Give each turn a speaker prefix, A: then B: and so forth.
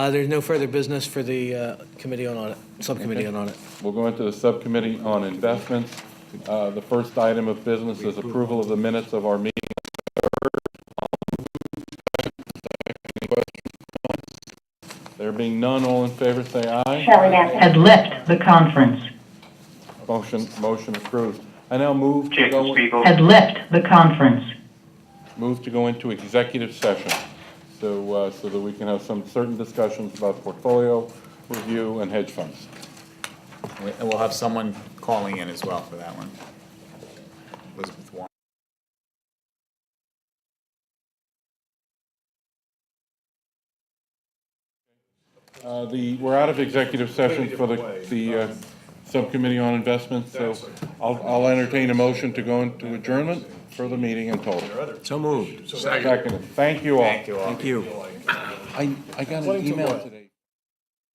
A: Uh, There's no further business for the uh, Committee on Audit, Subcommittee on Audit.
B: We'll go into the Subcommittee on Investments. Uh, The first item of business is approval of the minutes of our meeting. There being none, all in favor, say aye.
C: Shelley Appel.
D: had left the conference,
B: Motion, motion approved. I now move to
E: Jacob
B: go,
E: Spiegel.
D: had left the conference.
B: move to go into executive session, so, uh, so that we can have some certain discussions about portfolio review and hedge funds.
F: We- And we'll have someone calling in as well for that one. Elizabeth Warren.
B: Uh, The, we're out of executive session for the, the uh, Subcommittee on Investments, so I'll, I'll entertain a motion to go into adjournment for the meeting in total.
A: So moved.
B: Second, thank you all.
F: Thank you all.
A: Thank you.
B: I, I got an email today.